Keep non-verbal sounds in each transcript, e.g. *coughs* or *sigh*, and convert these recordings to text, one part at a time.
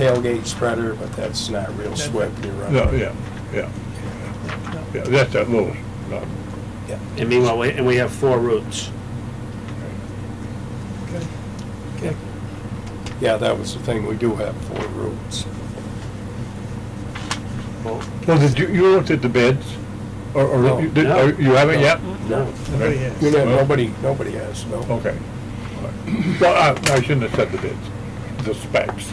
tailgate spreader, but that's not real SWIP, you're right. No, yeah, yeah. Yeah, that's that little, uh, Yeah. And meanwhile, we- and we have four routes. Yeah, that was the thing, we do have four routes. Well, well, did you, you looked at the bids? Or, No. or, you did- No. or you haven't yet? No, Nobody Right. has. You know, Well, nobody, nobody has, no. Okay. All right. Well, I, I shouldn't have said the bids, the specs.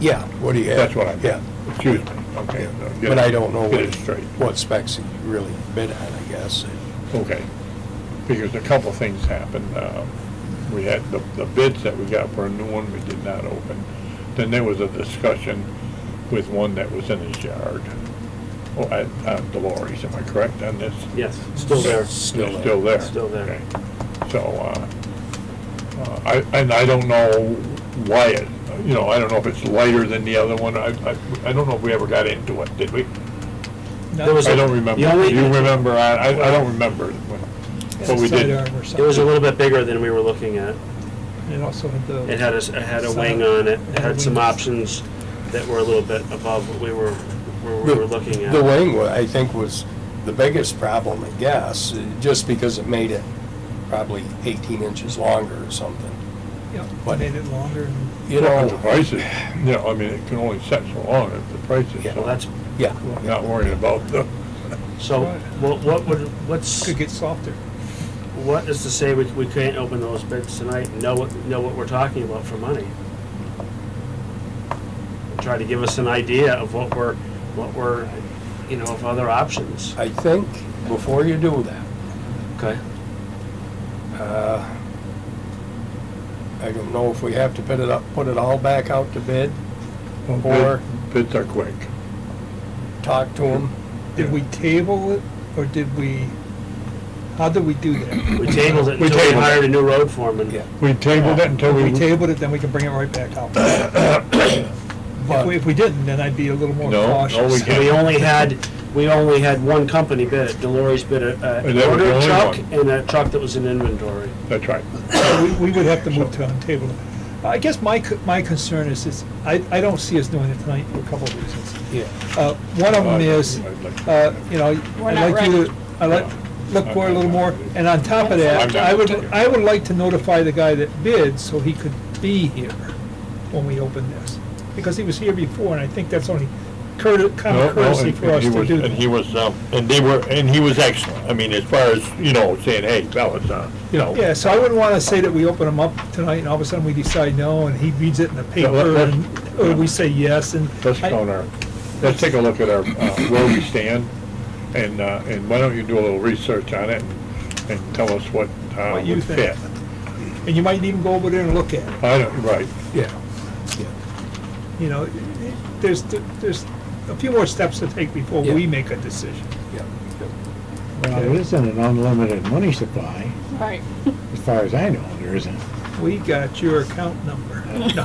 Yeah, what do you have? That's what I meant. Yeah, Excuse me, okay. no, get but it- I don't know Get it what, straight, what specs he really bid on, I guess. okay. Because a couple things happened. Uh, We had, the, the bids that we got for a new one, we did not open. Then there was a discussion with one that was in his yard, oh, at, at Delores, am I correct on this? yes, still there. Still there. Still there. Still there. Okay. So, uh, uh, I, and I don't know why it, you know, I don't know if it's lighter than the other one. I, I, I don't know if we ever got into it, did we? There was I a- don't the remember. only- You remember, I, I I don't remember. But we did. Sidearm or It was a something. little bit bigger than we were looking at. It also had the. It had a, s- it had a wing on it, it had some options that were a little bit above what we were, where we were looking The at. wing, wa- I think, was the biggest problem, I guess, uh, just because it made it probably 18 inches longer or something. Yep, What? made it longer and. You The know, prices, you know, I mean, it can only set so long if the price is Well, so. that's, yeah. I'm Not worrying about the, so what, what would, what's, Could get softer. what is to say we, we can't open those bids tonight, and know what, know what we're talking about for money? Try to give us an idea of what we're, what we're, you know, of other options. I think before you do that, Okay. Uh, I don't know if we have to put it up, put it all back out to bid, Or- bids are quick. talk to them. Did we table it or did we, how did we do that? We tabled it We until we tabled it. hired a new road foreman. Yeah. We tabled it until we. If we tabled it, then we can bring it right back out. If we, if we didn't, then I'd be a little more No, no, cautious. we And we only had, we only had one company bid it, Deloris bid a, And a that was the order only truck one. and a truck that was in inventory. That's right. So *coughs* we- We would have to move to untable it. I guess my, co- my concern is, is I, I don't see us doing it tonight for a couple of reasons. Yeah. Uh, One of them is, uh, you know, We're I'd not like you ready. to, I'd like, look for it a little more, and on top of I'm that, not I would, ready. I would like to notify the guy that bid so he could be here when we open this, because he was here before, and I think that's only courte- No, common no, courtesy and- for and us he to was- do And he that. was, um, and they were, and he was excellent. I mean, as far as, you know, saying, hey, fellas, uh, you know. Yeah, so I wouldn't want to say that we open him up tonight, and all of a sudden we decide no, and he reads it in the Yeah, paper, let- let's- and, or we say yes, and. Let's I- count our, let's take a look at our, uh, where we stand, and, uh, and why don't you do a little research on it and and tell us what, uh, What you would think. fit. And you might even go over there and look at it. I don't, right, Yeah. you know, there's, there's a few more steps to take before Yeah. we make a decision. Yeah. Well, there isn't an unlimited money supply, Right. as far as I know, there isn't. We got your account *laughs* number. No,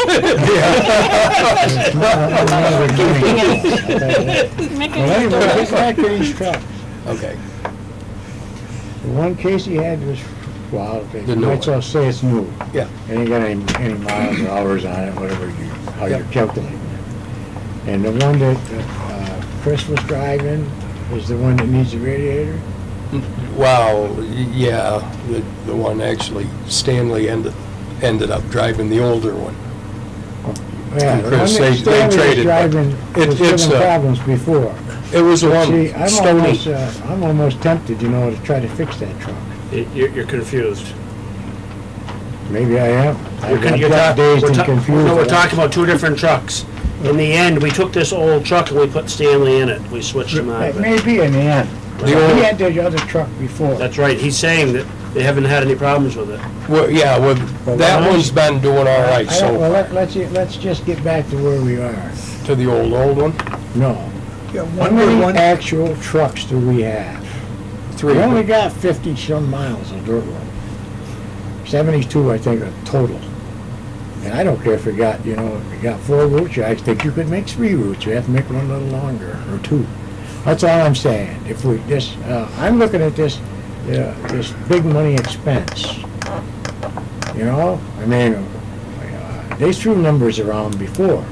There's not an unlimited money supply, I'll tell you that. Make Well, anyway, it get back to these trucks. Okay. The one case he had was, well, The you new might as well say it's new. Yeah. It ain't got any, any miles or hours on it, whatever you, how you're Yep. calculating it. And the one that, uh, Chris was driving was the one that needs a radiator? Wow, y- yeah, the, the one actually, Stanley ended, ended up driving the older one. Yeah, the one Chris, they- they that Stanley was traded, but driving, it- was it's uh, giving a- problems before. It was the See, one, I'm almost, Stony. uh, I'm almost tempted, you know, to try to fix that truck. Y- You're, you're confused. Maybe I am. You're con- I've got you're ta- dazed we're and ta- confused. No, we're talking about two different trucks. In the end, we took this old truck and we put Stanley in it. We switched him out It of it. may be in the end. The He old- had the other truck before. That's right. He's saying that they haven't had any problems with it. Well, yeah, well, Well, that why- one's been doing all right I don't- so, Well, let- let's, let's just get back to where we are. to the old, old one. No. yeah, How one more many one, actual trucks do we have? Three. We only got fifty some miles on dirt road. Seventy-two, I think, are total. And I don't care if we got, you know, if we got four routes, I think you could make three routes. You have to make one a little longer, or two. That's all I'm saying. If we, this, uh, I'm looking at this, uh, this big money expense. You know, I mean, uh, they threw numbers around before.